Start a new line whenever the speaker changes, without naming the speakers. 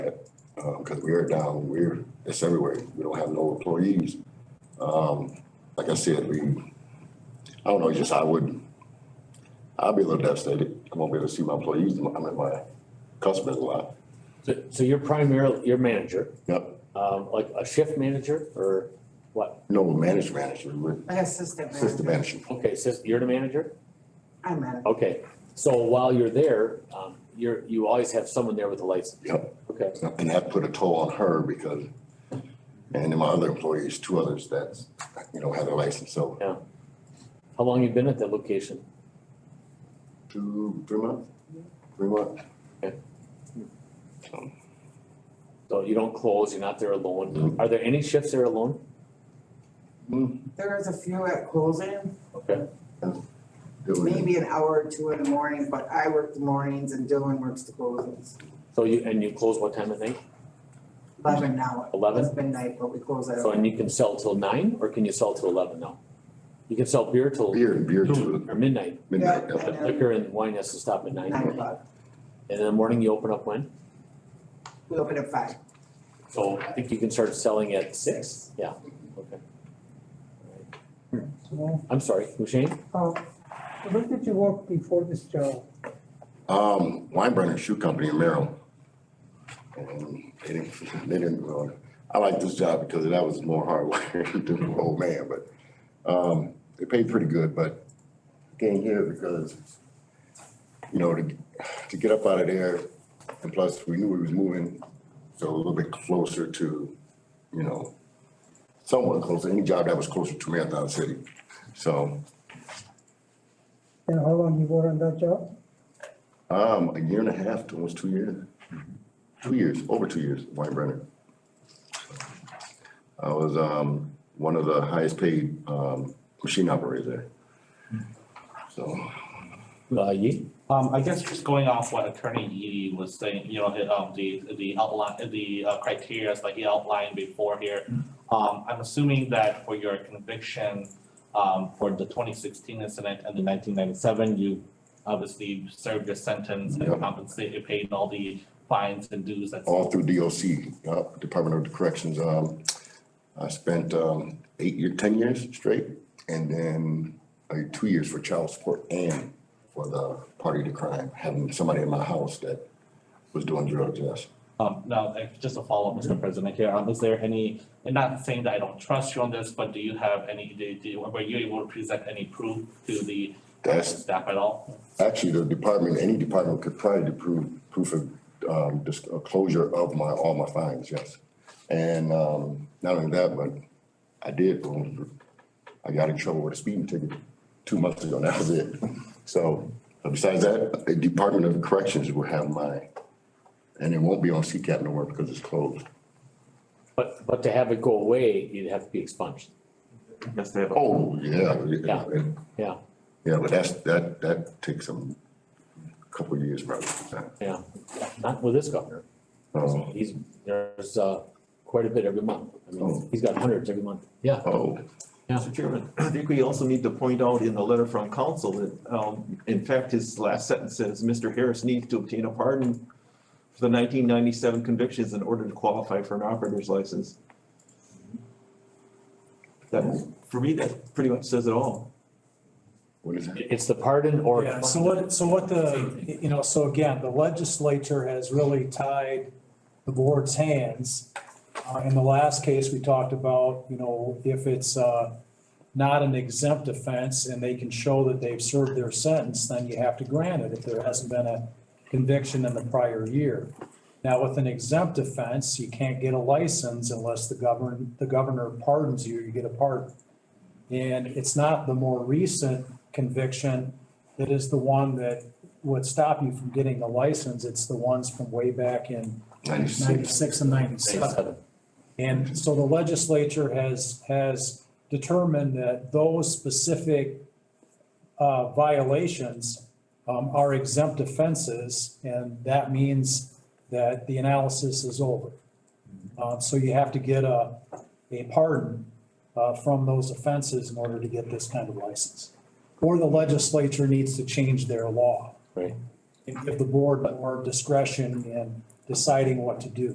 because we are down, Uh, we're, it's everywhere. We don't have no employees. Um, like I said, we, I don't know, just I would, I'd be a little devastated. I won't be able to see my employees, I mean, my customers a lot.
So, so you're primarily, your manager,
Yep,
um, like a shift manager or what?
no manager, manager, we're
An assistant
assistant
manager.
manager.
Okay, sis, you're the manager?
I manage.
Okay, so while you're there, um, you're, you always have someone there with a license?
Yep.
Okay,
And that put a toll on her because, and then my other employees, two others that's, you know, had a license, so
how long you been at that location?
two, three months? Three months?
So you don't close, you're not there alone. Are there any shifts there alone?
There is a few at closing,
Okay,
It was-
maybe an hour or two in the morning, but I work the mornings and Dylan works the closings.
so you, and you close what time of night?
Eleven now.
11?
It's midnight, but we close at.
So and you can sell till nine or can you sell till eleven now? You can sell beer till
Beer, beer to
or midnight,
midnight.
Yeah.
but liquor and wine has to stop at nine.
Nine o'clock.
And in the morning you open up when?
We open at five.
So I think you can start selling at six, yeah, okay. Alright. I'm sorry, Hushain,
Uh, Where did you work before this job?
Um, Weinbrenner Shoe Company in Merrill. And they didn't, they didn't, uh, I like this job because that was more hard work than the old man, but, um, they paid pretty good, but came here because, you know, to, to get up out of there, and plus we knew we was moving, so a little bit closer to, you know, somewhat closer, any job that was closer to Marathon City. So,
And how long you were on that job?
Um, a year and a half, to almost two years. Two years, over two years, Weinbrenner. I was, um, one of the highest paid, um, machine operators there. So,
uh, Yi,
Um, I guess just going off what Attorney Yee was saying, you know, hit, um, the, the outline, the uh, criteria like he outlined before here. Um, I'm assuming that for your conviction, um, for the twenty sixteen incident and the nineteen ninety-seven, you obviously served your sentence
Yeah.
and compensated, paid all the fines and dues that's.
all through DOC, uh, Department of Corrections, um, I spent, um, eight year, ten years straight, and then, like, two years for child support and for the party to crime, having somebody in my house that was doing drugs, yes.
Um, now, uh, just a follow-up, Mr. President here, um, is there any, and not saying that I don't trust you on this, but do you have any, do, do, were you able to present any proof to the
That's,
staff at all?
Actually, the department, any department could probably do proof, proof of, um, dis- uh, closure of my, all my fines, yes. And, um, not only that, but I did, um, I got in trouble with a speeding ticket two months ago, and that was it. So, but besides that, the Department of Corrections will have my, and it won't be on CCAP no more because it's closed.
but, but to have it go away, you'd have to be expunged.
Yes, they have. a-
Oh, yeah.
Yeah. Yeah.
Yeah, but that's, that, that takes some, couple of years probably.
Yeah, not with this governor.
Oh.
He's, there's, uh, quite a bit every month. I mean,
Oh.
he's got hundreds every month. Yeah,
Oh,
yeah.
Mr. Chairman, I think we also need to point out in the letter from council that, um, in fact, his last sentence says, Mr. Harris needs to obtain a pardon for the nineteen ninety-seven convictions in order to qualify for an operator's license. That, for me, that pretty much says it all.
what is that?
It's the pardon or.
Yeah, so what, so what the, you know, so again, the legislature has really tied the board's hands. Uh, in the last case, we talked about, you know, if it's, uh, not an exempt offense and they can show that they've served their sentence, then you have to grant it if there hasn't been a conviction in the prior year. Now, with an exempt offense, you can't get a license unless the govern, the governor pardons you, you get a pardon. And it's not the more recent conviction that is the one that would stop you from getting the license. It's the ones from way back in ninety-six and ninety-seven. And so the legislature has, has determined that those specific uh, violations um, are exempt offenses, and that means that the analysis is over. Uh, So you have to get a, a pardon uh, from those offenses in order to get this kind of license. Or the legislature needs to change their law
Right.
and give the board more discretion in deciding what to do.